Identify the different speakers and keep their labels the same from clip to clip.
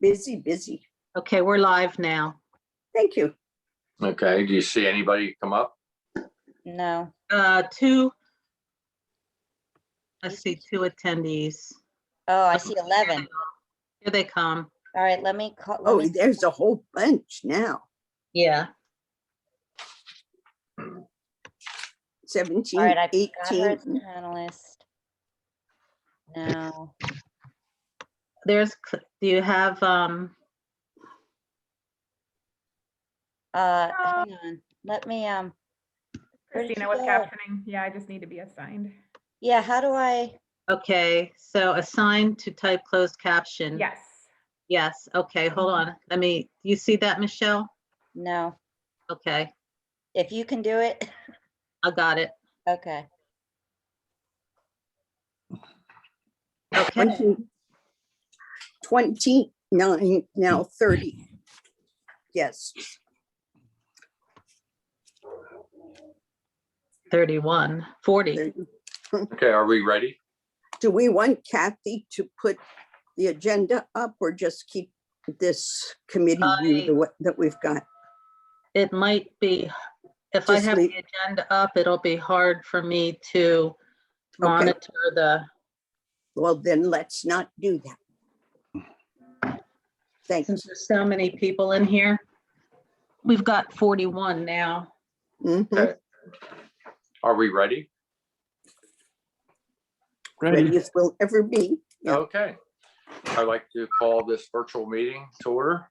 Speaker 1: busy, busy.
Speaker 2: Okay, we're live now.
Speaker 1: Thank you.
Speaker 3: Okay, do you see anybody come up?
Speaker 4: No,
Speaker 2: Uh, two. I see two attendees.
Speaker 4: oh, I see 11.
Speaker 2: Here they come.
Speaker 4: All right, let me call. let
Speaker 1: Oh,
Speaker 4: me-
Speaker 1: there's a whole bunch now.
Speaker 2: Yeah.
Speaker 4: All
Speaker 1: Seventeen,
Speaker 4: right, I've got her as
Speaker 1: eighteen.
Speaker 4: a panelist. No,
Speaker 2: There's, cl- do you have, um,
Speaker 4: uh, hang on, let me, um, Where'd she
Speaker 5: Christina with
Speaker 4: go?
Speaker 5: captioning. Yeah, I just need to be assigned.
Speaker 4: yeah, how do I?
Speaker 2: okay, so assign to type closed caption.
Speaker 5: Yes.
Speaker 2: Yes, okay, hold on. Let me, you see that, Michelle?
Speaker 4: No,
Speaker 2: Okay,
Speaker 4: if you can do it,
Speaker 2: I got it.
Speaker 4: okay.
Speaker 2: Okay,
Speaker 1: Twenty-nine, now thirty. Yes,
Speaker 2: 31, 40.
Speaker 1: thirty.
Speaker 3: Okay, are we ready?
Speaker 1: do we want Kathy to put the agenda up or just keep this committee view
Speaker 2: I-
Speaker 1: the wa- that we've got?
Speaker 2: It might be, if I
Speaker 1: Just
Speaker 2: have
Speaker 1: leave-
Speaker 2: the agenda up, it'll be hard for me to
Speaker 1: Okay.
Speaker 2: monitor the,
Speaker 1: Well, then let's not do that. Thanks.
Speaker 2: since there's so many people in here. We've got 41 now.
Speaker 1: Mhm.
Speaker 3: Are we ready?
Speaker 1: Ready as we'll ever be. Yeah.
Speaker 3: Okay. I'd like to call this virtual meeting to order.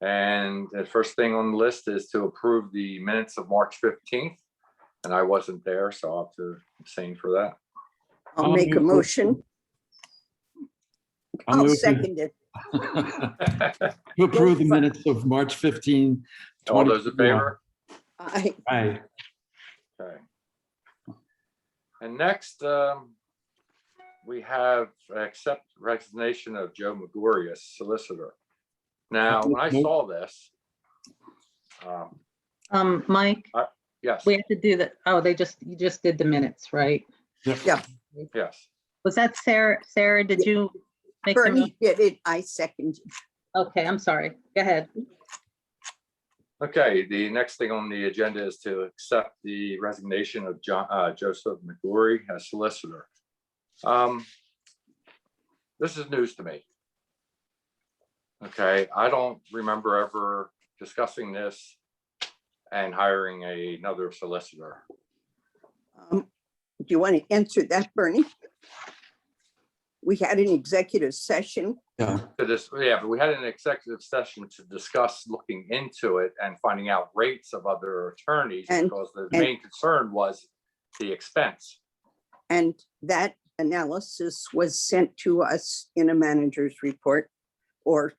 Speaker 3: And the first thing on the list is to approve the minutes of March 15th. And I wasn't there, so I'll have to abstain for that.
Speaker 1: I'll
Speaker 6: I'll
Speaker 1: make a
Speaker 6: move-
Speaker 1: motion.
Speaker 6: I'll
Speaker 1: I'll
Speaker 6: move to-
Speaker 1: Oh, second it.
Speaker 6: To approve the
Speaker 1: Yes, but-
Speaker 6: minutes of March 15.
Speaker 3: All those in
Speaker 6: 2021.
Speaker 3: favor?
Speaker 1: I,
Speaker 6: Aye.
Speaker 3: Okay. And next, um, we have accept resignation of Joe McGory as solicitor. Now, when I saw this, um,
Speaker 2: Um, Mike,
Speaker 3: yes,
Speaker 2: we have to do the, oh, they just, you just did the minutes, right?
Speaker 3: yes.
Speaker 2: Was that Sarah? Sarah, did you make the, mo-
Speaker 1: Bernie did it, I second.
Speaker 2: okay, I'm sorry. Go ahead.
Speaker 3: Okay, the next thing on the agenda is to accept the resignation of Jo- uh, Joseph McGory as solicitor. Um, This is news to me. Okay, I don't remember ever discussing this and hiring a- another solicitor.
Speaker 1: Um, Do you want to answer that, Bernie? We had an executive session.
Speaker 6: Yeah.
Speaker 3: To this, yeah, but we had an executive session to discuss looking into it and finding out rates of other attorneys
Speaker 1: And-
Speaker 3: because the
Speaker 1: and-
Speaker 3: main concern was the expense.
Speaker 1: And that analysis was sent to us in a manager's report or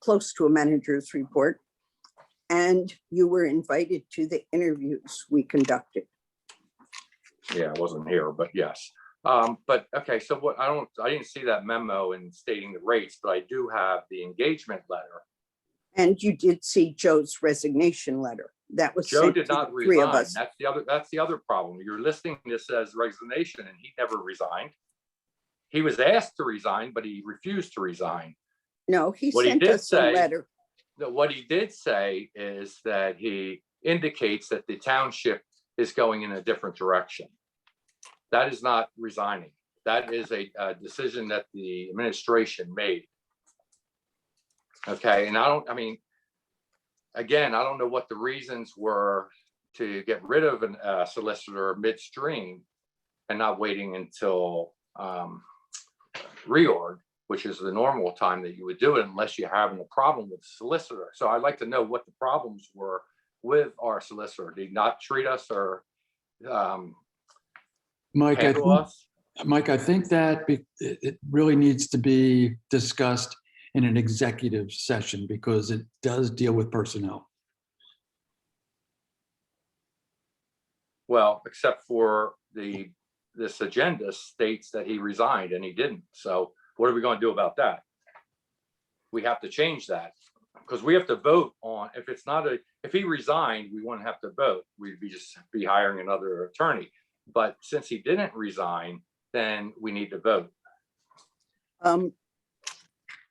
Speaker 1: close to a manager's report. And you were invited to the interviews we conducted.
Speaker 3: Yeah, I wasn't here, but yes. Um, but okay, so what, I don't, I didn't see that memo in stating the rates, but I do have the engagement letter.
Speaker 1: And you did see Joe's resignation letter. That was
Speaker 3: Joe
Speaker 1: sent to
Speaker 3: did
Speaker 1: the
Speaker 3: not
Speaker 1: three of
Speaker 3: resign.
Speaker 1: us.
Speaker 3: That's the other, that's the other problem. You're listing this as resignation and he never resigned. He was asked to resign, but he refused to resign.
Speaker 1: No, he
Speaker 3: What he
Speaker 1: sent
Speaker 3: did
Speaker 1: us a
Speaker 3: say-
Speaker 1: letter.
Speaker 3: Now, what he did say is that he indicates that the township is going in a different direction. That is not resigning. That is a, uh decision that the administration made. Okay, and I don't, I mean, again, I don't know what the reasons were to get rid of an uh, solicitor midstream and not waiting until um, reorg which is the normal time that you would do it unless you're having a problem with the solicitor. So I'd like to know what the problems were with our solicitor. Did he not treat us or um,
Speaker 6: Mike, I,
Speaker 3: handle
Speaker 6: think-
Speaker 3: us?
Speaker 6: Mike, I think that be- it it really needs to be discussed in an executive session because it does deal with personnel.
Speaker 3: Well, except for the, this agenda states that he resigned and he didn't. So what are we going to do about that? We have to change that because we have to vote on, if it's not a, if he resigned, we wouldn't have to vote. We'd be just be hiring another attorney. But since he didn't resign, then we need to vote.
Speaker 1: Um,